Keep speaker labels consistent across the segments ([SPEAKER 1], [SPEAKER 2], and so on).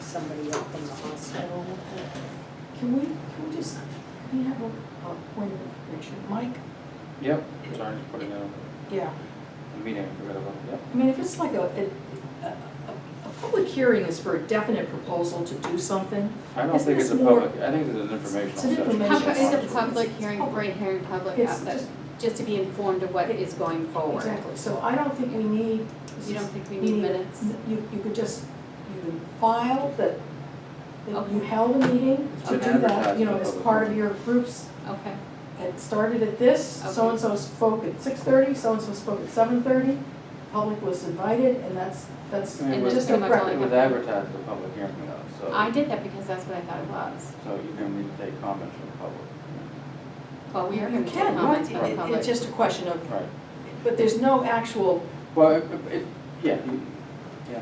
[SPEAKER 1] somebody up from the hospital with it.
[SPEAKER 2] Can we, can we just, can we have a, a point of information? Mike?
[SPEAKER 3] Yep, sorry, just putting out
[SPEAKER 2] Yeah.
[SPEAKER 3] a meeting, I forgot about, yep.
[SPEAKER 2] I mean, if it's like a, a, a, a public hearing is for a definite proposal to do something.
[SPEAKER 3] I don't
[SPEAKER 2] Isn't
[SPEAKER 3] think it's a
[SPEAKER 2] this more-
[SPEAKER 3] public, I think it's an informational
[SPEAKER 2] It's an
[SPEAKER 3] session.
[SPEAKER 2] information
[SPEAKER 4] How, co- is
[SPEAKER 2] session.
[SPEAKER 4] it public hearing, right hearing, public
[SPEAKER 2] It's
[SPEAKER 4] outlet,
[SPEAKER 2] just-
[SPEAKER 4] just to be informed of what is going forward?
[SPEAKER 2] Exactly, so I don't think we need.
[SPEAKER 4] You don't think we need minutes?
[SPEAKER 2] You, you could just, you could file that, that you
[SPEAKER 4] Okay.
[SPEAKER 2] held a meeting
[SPEAKER 3] It's
[SPEAKER 2] to
[SPEAKER 3] been
[SPEAKER 2] do that,
[SPEAKER 3] advertised
[SPEAKER 2] you know,
[SPEAKER 3] for
[SPEAKER 2] as
[SPEAKER 3] public
[SPEAKER 2] part of
[SPEAKER 3] hearing.
[SPEAKER 2] your groups.
[SPEAKER 4] Okay,
[SPEAKER 2] It started at this,
[SPEAKER 4] Okay.
[SPEAKER 2] so-and-so spoke at six thirty, so-and-so spoke at seven thirty, public was invited, and that's, that's
[SPEAKER 3] I mean,
[SPEAKER 4] And
[SPEAKER 3] with-
[SPEAKER 2] just
[SPEAKER 4] pretty
[SPEAKER 2] a
[SPEAKER 4] much
[SPEAKER 2] record.
[SPEAKER 4] all-
[SPEAKER 3] It was advertised as a public hearing though, so.
[SPEAKER 4] I did that because that's what I thought it was.
[SPEAKER 3] So you're gonna need to take comments from the public.
[SPEAKER 4] Well, we are
[SPEAKER 2] You
[SPEAKER 4] gonna take
[SPEAKER 2] can, right,
[SPEAKER 4] comments from the
[SPEAKER 2] It-
[SPEAKER 4] public.
[SPEAKER 2] it's just a question of,
[SPEAKER 3] Right,
[SPEAKER 2] but there's no actual,
[SPEAKER 3] well, it- it, yeah, you- yeah,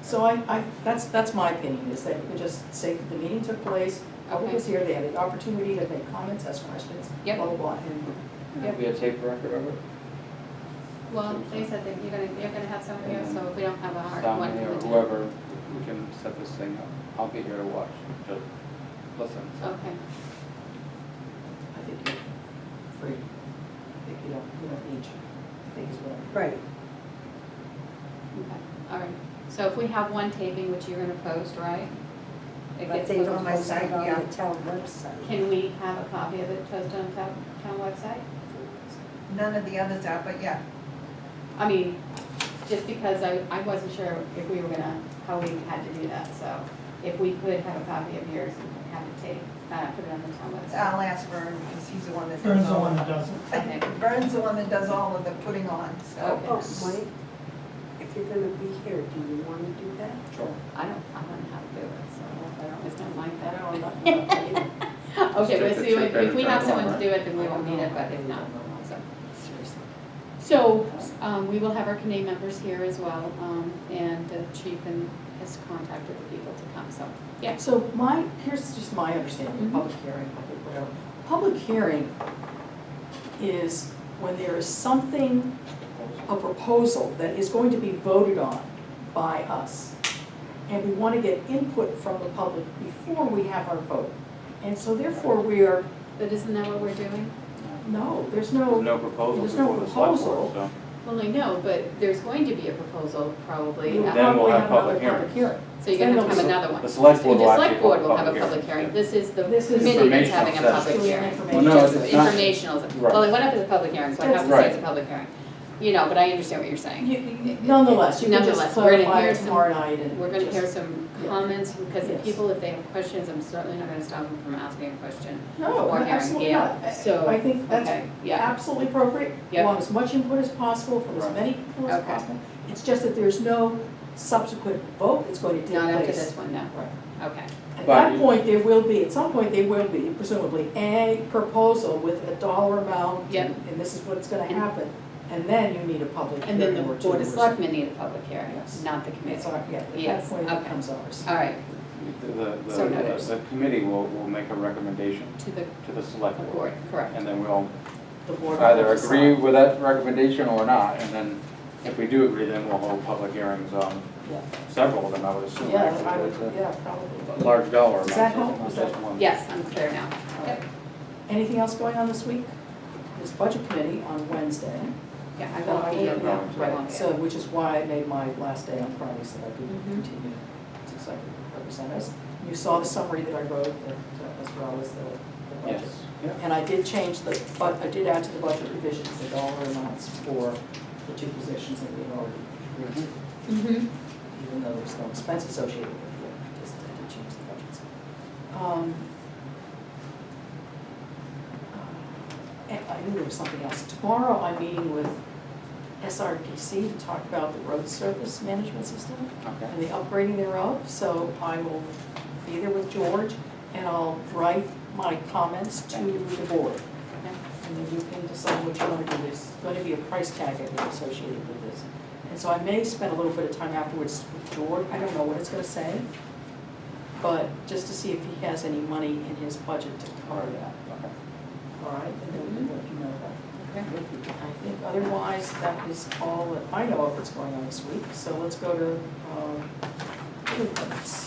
[SPEAKER 2] so I, I, that's, that's my opinion, is that you can just say that the meeting took place, public was here, they had the opportunity to make comments, ask questions, blah,
[SPEAKER 4] Yep.
[SPEAKER 2] blah, blah, and
[SPEAKER 3] it'll be a tape record of it.
[SPEAKER 4] Well, they said that you're gonna, you're gonna have someone here, so if we don't have a hard
[SPEAKER 3] Down
[SPEAKER 4] one
[SPEAKER 3] here,
[SPEAKER 4] for the town.
[SPEAKER 3] whoever, we can set this thing up. I'll be here to watch, just listen.
[SPEAKER 4] Okay,
[SPEAKER 2] I think you're free. I think you don't, you don't need, I think is what. I'm-
[SPEAKER 1] Right,
[SPEAKER 4] okay, all right. So if we have one taping, which you're gonna post, right? It
[SPEAKER 1] but
[SPEAKER 4] gets
[SPEAKER 1] they don't
[SPEAKER 4] posted.
[SPEAKER 1] post it on the town website.
[SPEAKER 4] Can we have a copy of it posted on town, town website?
[SPEAKER 5] None of the others are, but yeah,
[SPEAKER 4] I mean, just because I, I wasn't sure if we were gonna, how we had to do that, so if we could have a copy of yours and have it take, uh, put it on the town website.
[SPEAKER 5] I'll ask Vern, because he's the one that
[SPEAKER 6] Vern's
[SPEAKER 5] does
[SPEAKER 6] the
[SPEAKER 5] all
[SPEAKER 6] one
[SPEAKER 5] of
[SPEAKER 6] that does it.
[SPEAKER 4] Okay,
[SPEAKER 5] it. Vern's the one that does all of the putting on, so.
[SPEAKER 4] Okay.
[SPEAKER 1] Oh, Mike, if you're gonna be here, do you wanna do that?
[SPEAKER 3] Sure.
[SPEAKER 4] I don't, I don't know how to do it, so I don't, it's not like
[SPEAKER 2] I
[SPEAKER 4] that.
[SPEAKER 2] don't know.
[SPEAKER 4] Okay,
[SPEAKER 3] Just
[SPEAKER 4] but
[SPEAKER 3] check
[SPEAKER 4] see,
[SPEAKER 3] the-
[SPEAKER 4] if
[SPEAKER 3] check
[SPEAKER 4] if we
[SPEAKER 3] that
[SPEAKER 4] have
[SPEAKER 3] it's on,
[SPEAKER 4] someone to
[SPEAKER 3] right?
[SPEAKER 4] do it, then we won't need it, but if not, so.
[SPEAKER 2] Seriously.
[SPEAKER 4] So, um, we will have our committee members here as well, um, and the chief and has contacted the people to come, so, yeah.
[SPEAKER 2] So my, here's just my understanding of public
[SPEAKER 4] Mm-hmm.
[SPEAKER 2] hearing, public whatever. Public hearing is when there is something, a proposal that is going to be voted on by us. And we want to get input from the public before we have our vote. And so therefore we are,
[SPEAKER 4] But isn't that what we're doing?
[SPEAKER 2] no, there's
[SPEAKER 3] There's
[SPEAKER 2] no,
[SPEAKER 3] no proposal
[SPEAKER 2] There's no
[SPEAKER 3] before the select
[SPEAKER 2] proposal.
[SPEAKER 3] board, so.
[SPEAKER 4] Well, I know, but there's going to be a proposal probably.
[SPEAKER 2] we will
[SPEAKER 4] at-
[SPEAKER 3] Then we'll
[SPEAKER 2] probably have
[SPEAKER 3] have
[SPEAKER 2] another
[SPEAKER 3] public
[SPEAKER 2] public
[SPEAKER 3] hearings.
[SPEAKER 2] hearing.
[SPEAKER 4] So you're gonna
[SPEAKER 2] Then
[SPEAKER 4] have
[SPEAKER 2] there'll
[SPEAKER 4] another one.
[SPEAKER 3] The select board will
[SPEAKER 4] The
[SPEAKER 3] actually
[SPEAKER 4] select board
[SPEAKER 3] hold
[SPEAKER 4] will have a
[SPEAKER 3] public
[SPEAKER 4] public hearing.
[SPEAKER 3] hearings,
[SPEAKER 4] This is the
[SPEAKER 2] This is-
[SPEAKER 4] committee that's having a
[SPEAKER 3] Informational
[SPEAKER 2] session.
[SPEAKER 4] public hearing.
[SPEAKER 2] Well,
[SPEAKER 3] no,
[SPEAKER 4] Just
[SPEAKER 3] it's not-
[SPEAKER 4] Informational,
[SPEAKER 3] Right.
[SPEAKER 4] well, it went up as a public hearing, so I have to say
[SPEAKER 3] Right.
[SPEAKER 4] it's a public hearing. You know, but I understand what you're saying.
[SPEAKER 2] You- you- Nonetheless, you can just
[SPEAKER 4] Nonetheless, we're gonna
[SPEAKER 2] clarify
[SPEAKER 4] hear
[SPEAKER 2] it
[SPEAKER 4] some-
[SPEAKER 2] tomorrow night and
[SPEAKER 4] We're gonna hear
[SPEAKER 2] just-
[SPEAKER 4] some
[SPEAKER 2] Yeah.
[SPEAKER 4] comments, because the
[SPEAKER 2] Yes.
[SPEAKER 4] people, if they have questions, I'm certainly not gonna stop them from asking a question.
[SPEAKER 2] No,
[SPEAKER 4] or hearing,
[SPEAKER 2] absolutely
[SPEAKER 4] yeah,
[SPEAKER 2] not. I-
[SPEAKER 4] so,
[SPEAKER 2] I think that's
[SPEAKER 4] Okay, yeah,
[SPEAKER 2] absolutely appropriate. We
[SPEAKER 4] Yep.
[SPEAKER 2] want as much input as possible from as
[SPEAKER 3] Right.
[SPEAKER 2] many people as
[SPEAKER 4] Okay.
[SPEAKER 2] possible. It's just that there's no subsequent vote that's going to take
[SPEAKER 4] not after
[SPEAKER 2] place.
[SPEAKER 4] this one, no,
[SPEAKER 2] Right.
[SPEAKER 4] okay,
[SPEAKER 2] At
[SPEAKER 3] But
[SPEAKER 2] that
[SPEAKER 3] you-
[SPEAKER 2] point, there will be, at some point, there will be presumably a proposal with a dollar amount.
[SPEAKER 4] Yep.
[SPEAKER 2] And this is what's gonna
[SPEAKER 4] And-
[SPEAKER 2] happen. And then you need a public
[SPEAKER 4] and then
[SPEAKER 2] hearing
[SPEAKER 4] the
[SPEAKER 2] or two.
[SPEAKER 4] board of
[SPEAKER 2] or-
[SPEAKER 4] selectmen need a public hearing,
[SPEAKER 2] Yes.
[SPEAKER 4] not the committee.
[SPEAKER 2] It's our, yeah, at that
[SPEAKER 4] Yes,
[SPEAKER 2] point, it
[SPEAKER 4] okay.
[SPEAKER 2] becomes ours.
[SPEAKER 4] All right,
[SPEAKER 3] The, the-
[SPEAKER 4] So
[SPEAKER 3] the,
[SPEAKER 4] noted.
[SPEAKER 3] the committee will, will make a recommendation
[SPEAKER 4] to the
[SPEAKER 3] to the select board.
[SPEAKER 4] board, correct.
[SPEAKER 3] And then we'll
[SPEAKER 2] The board will
[SPEAKER 3] either
[SPEAKER 2] decide.
[SPEAKER 3] agree with that recommendation or not, and then if we do agree, then we'll hold public hearings on
[SPEAKER 2] Yeah.
[SPEAKER 3] several of them, I would assume.
[SPEAKER 2] Yeah,
[SPEAKER 3] actually,
[SPEAKER 2] I would,
[SPEAKER 3] but
[SPEAKER 2] yeah,
[SPEAKER 3] it's a
[SPEAKER 2] probably.
[SPEAKER 3] Large dollar amount.
[SPEAKER 2] Does that
[SPEAKER 3] so it's
[SPEAKER 2] help?
[SPEAKER 3] not
[SPEAKER 2] Was that-
[SPEAKER 3] just one.
[SPEAKER 4] Yes, I'm clear now. Yep.
[SPEAKER 2] Anything else going on this week? There's budget committee on Wednesday.
[SPEAKER 4] Yeah, I won't be,
[SPEAKER 3] Yeah,
[SPEAKER 4] in that. I
[SPEAKER 2] Right,
[SPEAKER 4] won't be.
[SPEAKER 2] so,
[SPEAKER 4] in.
[SPEAKER 2] which is why I made my last day on Friday, so that I could
[SPEAKER 4] Mhm.
[SPEAKER 2] continue to so I could represent us. You saw the summary that I wrote, that, uh, as well as the the budget.
[SPEAKER 3] Yes, yeah.
[SPEAKER 2] And I did change the, but I did add to the budget revisions the dollar amounts for the two positions that we had already agreed
[SPEAKER 3] Mm-hmm.
[SPEAKER 2] to,
[SPEAKER 4] Mhm.
[SPEAKER 2] even though there's no expense associated with it, I just I did change the budgets. Um, uh, And I knew there was something else. Tomorrow, I'm meeting with SRPC to talk about the road surface management system
[SPEAKER 3] Okay.
[SPEAKER 2] um, and the upgrading thereof, so I will be there with George, and I'll write my comments to the board. And then you can decide what you want to do, there's going to be a price tag I think, associated with this. And so I may spend a little bit of time afterwards with George, I don't know what it's going to say, but just to see if he has any money in his budget to cover that,
[SPEAKER 3] Okay.
[SPEAKER 2] all right? And then we can let you know that.
[SPEAKER 4] Okay.
[SPEAKER 2] I think otherwise, that is all that I know of what's going on this week, so let's go to, um, appointments.